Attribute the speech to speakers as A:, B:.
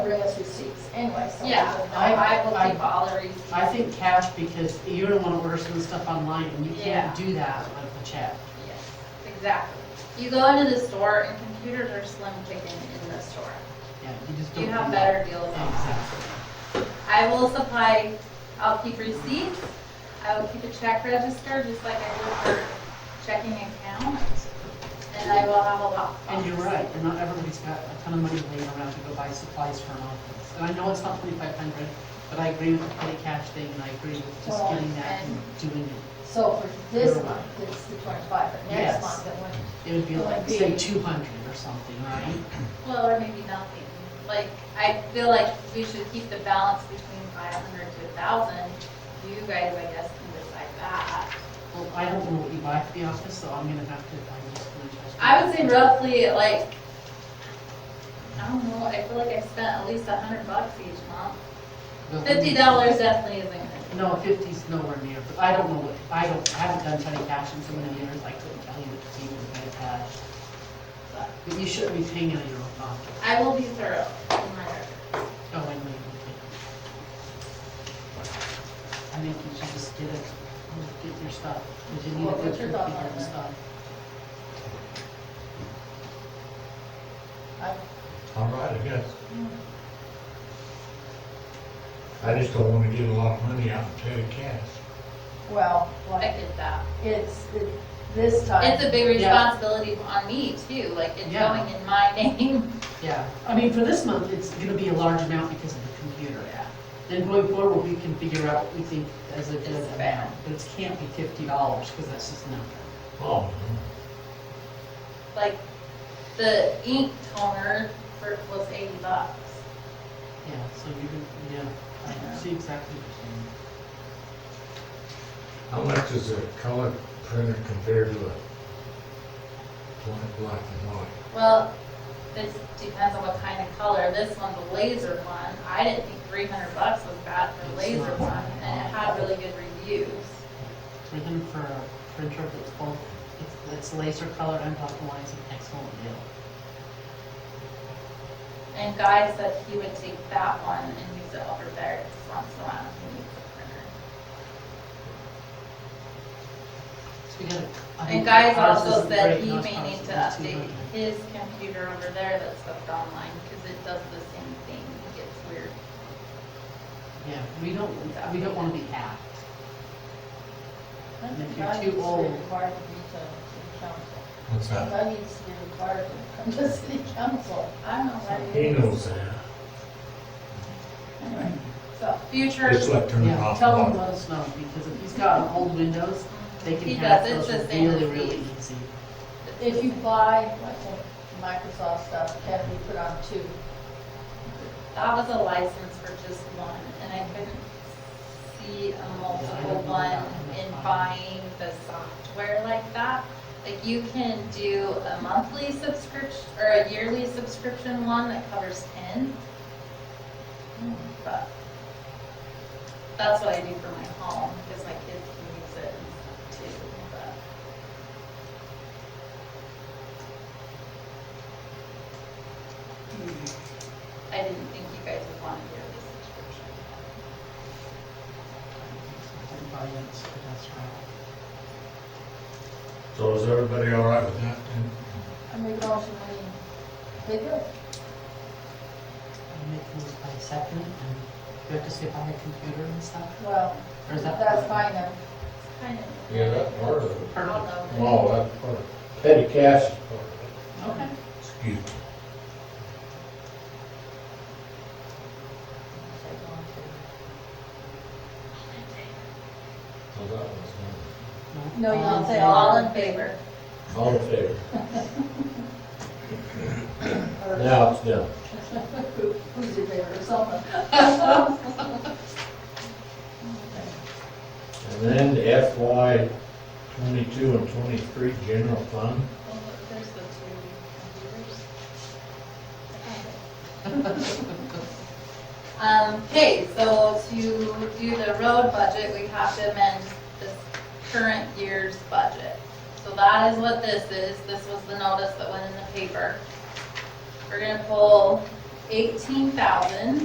A: realize receipts anyway, so.
B: Yeah, I, I will keep all the receipts.
C: I think cash because you're gonna wanna order some stuff online and you
B: Yeah.
C: can't do that with a check.
B: Yes, Exactly. You go into the store and computers are slim picking in the store.
C: Yeah, you just don't.
B: You
C: do
B: have
C: that.
B: better deals on that.
C: Exactly.
B: I will supply, I'll keep receipts, I will keep a check register, just like I do for checking account, and I will have a lot.
C: And you're right, and not everybody's got a ton of money laying around to go buy supplies for an office. And I know it's not twenty-five hundred, but I agree with the petty cash thing and I agree with just
A: Well,
C: getting that
B: and-
C: and doing it.
A: So for this month, it's the twenty-five, but
C: Yes.
A: next month, it went,
C: It would be
A: Well,
C: like,
A: it'd be-
C: say, two hundred or something, right?
B: Well, or maybe nothing. Like, I feel like we should keep the balance between five hundred to a thousand. You guys, I guess, can decide that.
C: Well, I don't know what you buy for the office, so I'm gonna have to, I'm just gonna trust. you.
B: I would say roughly like, I don't know, I feel like I've spent at least a hundred bucks each month.
C: But-
B: Fifty dollars definitely isn't gonna
C: No, fifty's nowhere near, but I don't know what, I don't, I haven't done petty cash in so many years, I couldn't tell you what to do with petty cash. But- But you shouldn't be paying out of your own pocket,
B: I will be thorough in my records.
C: go and leave it. I think you should just get it, get your stuff, because you need a
A: Well,
C: good
A: what's your thought on
C: computer and
A: that?
C: stuff.
A: I,
D: All right, I guess. I just don't wanna get a lot of money out of petty cash.
A: well,
B: I
A: like,
B: get that.
A: it's, it- this time.
B: It's a big
C: Yeah.
B: responsibility on me too, like it's
C: Yeah.
B: going in my name.
C: Yeah, I mean, for this month, it's gonna be a large amount because of the computer app. Then going forward, we can figure out what we think as a good
B: It's fair.
C: amount, but it can't be fifty dollars, because that's just not.
D: Oh,
B: Like, the ink toner for, was eighty bucks.
C: Yeah, so you can, yeah, I see exactly what you're saying.
D: how much does a color printer compare to a black, black and white?
B: Well, this depends on what kind of color. This one, the laser one, I didn't think three hundred bucks was bad for the
C: It's
B: laser
C: not.
B: one, and it had really good reviews.
C: We're looking for a printer that's both, it's- that's laser colored and black and white, is an excellent deal.
B: And Guy said he would take that one and use it over there just once in a while. if he needs a printer.
C: So we gotta- I think
B: And Guy's
C: ours
B: also
C: isn't
B: said
C: great,
B: he
C: and ours
B: may need
C: is
B: to
C: about
B: update
C: 200.
B: his computer over there that's hooked online, because it does the same thing, it gets weird.
C: Yeah, we don't, we don't wanna be hacked.
A: I
C: If
A: think
C: you're
A: that
C: too
A: needs to be
C: old.
A: Required to be to city council.
D: What's that?
A: That needs to be required to come to city council.
B: I don't know what
D: He
B: it
D: knows that.
A: Anyway, so,
B: is. Future,
D: It's like turning
C: Yeah,
D: off.
C: tell him
D: the
C: let us know, because if he's got an old Windows, they
B: He
C: can hack
B: does, it's
C: those
B: the same as
C: really, really
B: these.
C: easy.
A: if you buy, like, Microsoft stuff, can be put on two?
B: that was a license for just one, and I couldn't see a multiple one in buying the software like that. Like, you can do a monthly subscription, or a yearly subscription one that covers ten, but that's what I do for my home, because my kids can use it and stuff too, but. I didn't think you guys would want a yearly subscription.
C: Everybody else, but that's right.
D: So is everybody all right with that? then?
A: I make a motion, we, they do.
C: I make those by second, and you have to say buy a computer and stuff,
A: Well,
C: or is that?
A: that's fine, then.
B: It's kind of.
D: Yeah, that's part of it.
B: I don't
C: Perfect.
B: know.
D: Oh, that's part of it. Petty cash is part of it.
C: Okay.
D: Excuse me. Well, Oh, that was
A: No, you don't say
B: All in favor?
D: nice. All in favor?
A: Or-
D: Now it's done.
A: Who- Who's your favorite or something?
D: And then the FY twenty-two and twenty-three general fund,
B: Well, There's the two computers. Um, okay, so to do the road budget, we have to amend this current year's budget. So that is what this is, this was the notice that went in the paper. We're gonna pull eighteen thousand